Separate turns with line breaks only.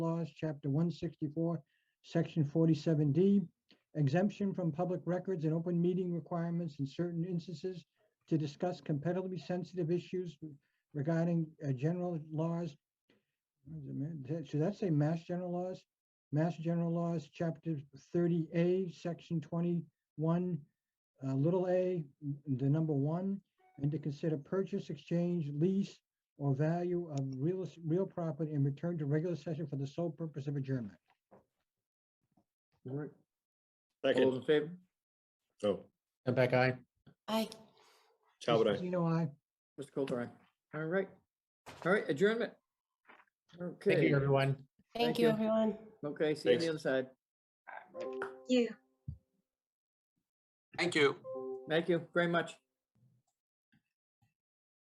laws, chapter one sixty-four, section forty-seven D, exemption from public records and open meeting requirements in certain instances to discuss competitively sensitive issues regarding uh, general laws. What is it, man? Should that say mass general laws? Mass general laws, chapter thirty A, section twenty-one, uh, little a, the number one, and to consider purchase, exchange, lease, or value of real, real property and return to regular session for the sole purpose of adjournment.
All right. All those
Second,
in favor?
oh,
Back aye.
Aye.
Talbot,
Mr.
aye.
Zeno, aye.
Mr. Coulter, aye. All right. All right, adjournment.
Thank
Okay,
you, everyone.
Thank
Thank you,
you.
everyone.
okay, see you on
Thanks.
the other side.
you.
Thank you.
Thank you very much.